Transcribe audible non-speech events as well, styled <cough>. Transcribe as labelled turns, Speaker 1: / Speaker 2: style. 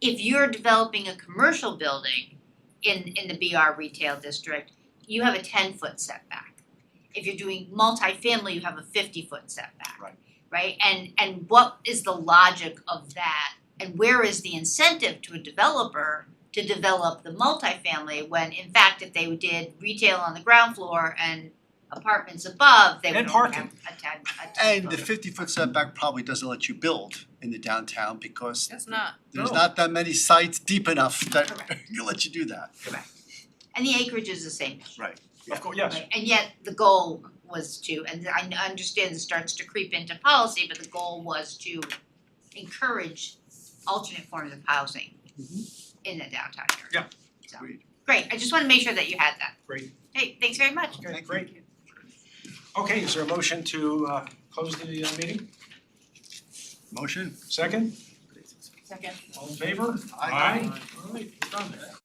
Speaker 1: if you're developing a commercial building in, in the BR retail district, you have a ten foot setback. If you're doing multifamily, you have a fifty foot setback.
Speaker 2: Right.
Speaker 1: Right, and and what is the logic of that? And where is the incentive to a developer to develop the multifamily when in fact if they did retail on the ground floor and apartments above, they would
Speaker 2: And
Speaker 1: only
Speaker 2: parking.
Speaker 1: have a ten, a ten
Speaker 2: And the
Speaker 1: foot.
Speaker 2: fifty foot setback probably doesn't let you build in the downtown because
Speaker 3: It's not.
Speaker 2: there's
Speaker 4: No.
Speaker 2: not that many sites deep enough that <laughs>
Speaker 1: Correct.
Speaker 2: you let you do that.
Speaker 1: And the acreage is the same.
Speaker 4: Of course, yes.
Speaker 1: Right, and yet the goal was to, and I n- understand this starts to creep into policy, but the goal was to encourage alternate forms of housing in the downtown area.
Speaker 4: Mm-hmm. Yeah.
Speaker 1: So,
Speaker 2: Agreed.
Speaker 1: great, I just wanna make sure that you had that.
Speaker 4: Great.
Speaker 1: Hey, thanks very much.
Speaker 4: Okay, great. Okay, is there a motion to uh close the uh, meeting?
Speaker 2: Motion?
Speaker 4: Second,
Speaker 3: Second.
Speaker 4: all in favor?
Speaker 2: Aye.
Speaker 4: All right, we're done.